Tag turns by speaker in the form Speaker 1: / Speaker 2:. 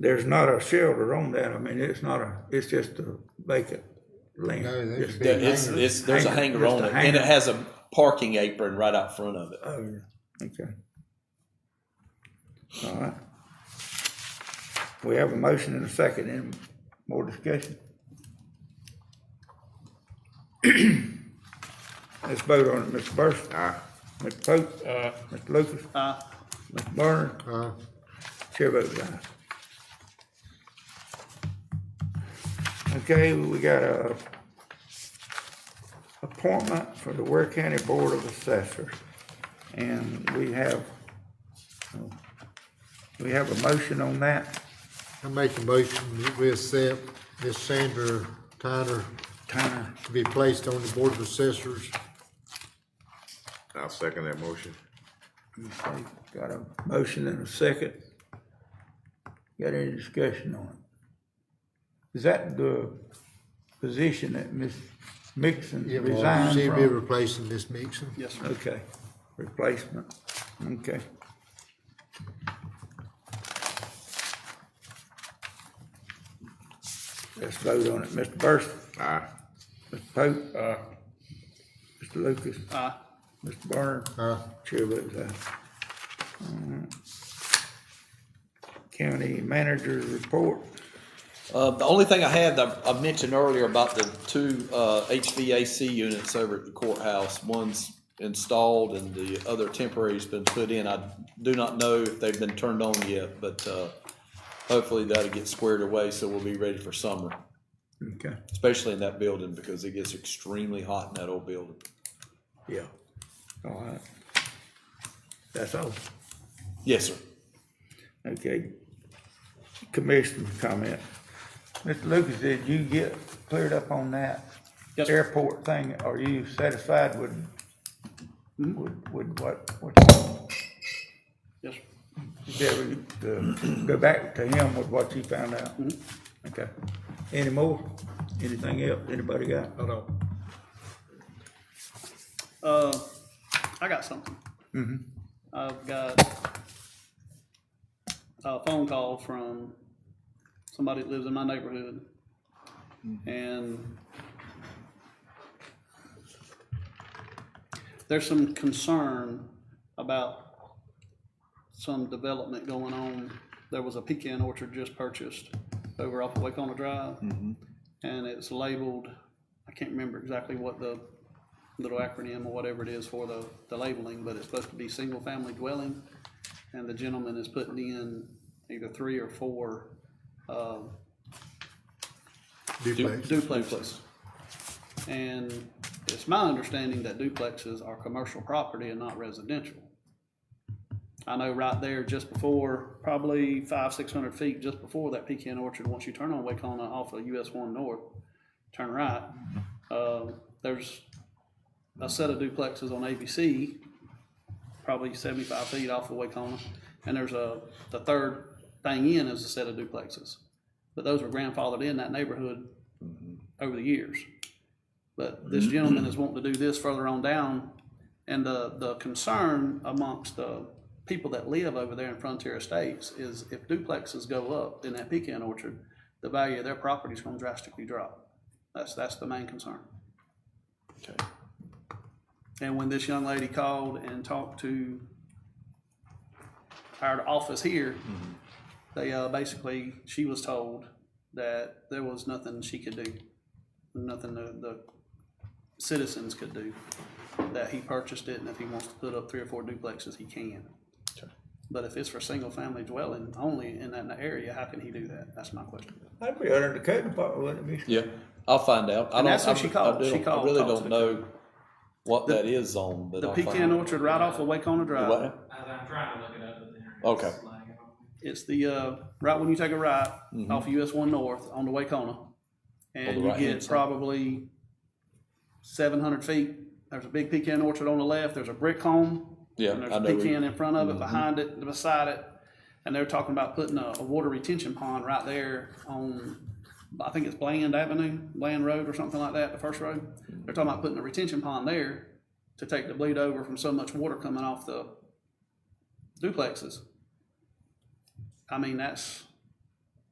Speaker 1: there's not a shelter on that. I mean, it's not a, it's just a vacant land.
Speaker 2: No, there
Speaker 1: Just-
Speaker 2: should be a
Speaker 3: It's,
Speaker 2: hanger.
Speaker 3: it's, there's a
Speaker 1: Hanger,
Speaker 3: hanger
Speaker 1: just
Speaker 3: on
Speaker 1: a
Speaker 3: it, and
Speaker 1: hanger.
Speaker 3: it has a parking apron right out front of it.
Speaker 1: Oh, yeah. okay. All right. We have a motion and a second. Any more discussion? Let's vote on it. Mr. Burson?
Speaker 4: Aye.
Speaker 1: Mr. Pope? Mr. Lucas?
Speaker 5: Aye.
Speaker 1: Mr. Burner?
Speaker 2: Uh,
Speaker 1: Chair votes aye. uh, Okay, we got a appointment for the Ware County Board of Assessors. And we have, we have a motion on that.
Speaker 2: I make a motion that we accept Miss Sandra Tyner
Speaker 1: Tyner,
Speaker 2: to be placed on the Board of Assessors.
Speaker 4: I'll second that motion.
Speaker 1: okay, got a motion and a second. Got any discussion on it? Is that the position that Ms. Mixon
Speaker 2: Yeah,
Speaker 1: resigned
Speaker 2: well,
Speaker 1: from?
Speaker 2: She'll be replacing Miss Mixon.
Speaker 5: Yes, sir.
Speaker 1: Okay, replacement, okay. Let's vote on it, Mr. Burson,
Speaker 4: Aye.
Speaker 1: Mr. Pope. Mr. Lucas,
Speaker 5: Aye.
Speaker 1: Mr. Barner.
Speaker 2: Uh,
Speaker 1: Chair votes aye. Alright. County manager's report,
Speaker 3: Uh, the only thing I had, that I mentioned earlier about the two, uh, HVAC units over at the courthouse, one's installed and the other temporary's been put in. I do not know if they've been turned on yet, but, uh, hopefully that'll get squared away, so we'll be ready for summer,
Speaker 1: okay,
Speaker 3: especially in that building, because it gets extremely hot in that old building.
Speaker 1: yeah, all right. That's all,
Speaker 3: Yes, sir.
Speaker 1: okay. Commissioner's comment. Mr. Lucas, did you get cleared up on that
Speaker 5: Yes, sir.
Speaker 1: airport thing? Are you satisfied with, with, with what, what,
Speaker 5: Hmm? Yes, sir.
Speaker 1: did we, to go back to him with what you found out?
Speaker 5: Hmm?
Speaker 1: Okay. Any more? Anything else? Anybody got?
Speaker 5: Hold on. Uh, I got something. I've got a phone call from somebody that lives in my neighborhood. And there's some concern about some development going on. There was a pecan orchard just purchased over off of Wakona Drive and it's labeled, I can't remember exactly what the little acronym or whatever it is for the, the labeling, but it's supposed to be single-family dwelling. And the gentleman is putting in either three or four, uh,
Speaker 2: duplex.
Speaker 5: duplexes. And it's my understanding that duplexes are commercial property and not residential. I know right there, just before, probably five, six hundred feet, just before that pecan orchard, once you turn on Wakona off of US one north, turn right, uh, there's a set of duplexes on ABC, probably seventy-five feet off of Wakona, and there's a, the third thing in is a set of duplexes. But those were grandfathered in that neighborhood over the years. But this gentleman is wanting to do this further on down, and the, the concern amongst the people that live over there in Frontier Estates is if duplexes go up in that pecan orchard, the value of their property is gonna drastically drop. That's, that's the main concern.
Speaker 3: Okay.
Speaker 5: And when this young lady called and talked to our office here, they, uh, basically, she was told that there was nothing she could do, nothing the, the citizens could do, that he purchased it, and if he wants to put up three or four duplexes, he can.
Speaker 3: Okay.
Speaker 5: But if it's for single-family dwelling only in that area, how can he do that? That's my question.
Speaker 1: That'd be under the code department, wouldn't it be?
Speaker 3: Yeah, I'll find out. I don't-
Speaker 5: And that's who
Speaker 3: I-
Speaker 5: she called.
Speaker 3: I don't-
Speaker 5: She called-
Speaker 3: I really
Speaker 5: called to
Speaker 3: don't
Speaker 5: the-
Speaker 3: know what that is on, but
Speaker 5: The
Speaker 3: I'll find out.
Speaker 5: pecan orchard right off of Wakeona Drive.
Speaker 3: What?
Speaker 6: As I'm trying to look it up, but the internet.
Speaker 3: Okay.
Speaker 6: is lagging on me.
Speaker 5: It's the, uh, right when you take a right
Speaker 3: Mm-hmm.
Speaker 5: off US one north on the Wakeona. And you
Speaker 3: right-hand
Speaker 5: get
Speaker 3: side.
Speaker 5: probably seven hundred feet. There's a big pecan orchard on the left. There's a brick home.
Speaker 3: Yeah,
Speaker 5: And there's
Speaker 3: I
Speaker 5: a
Speaker 3: know where you- Mm-hmm.
Speaker 5: pecan in front of it, behind it, beside it. And they're talking about putting a, a water retention pond right there on, I think it's Bland Avenue, Bland Road or something like that, the first road. They're talking about putting a retention pond there to take the bleed over from so much water coming off the duplexes. I mean, that's,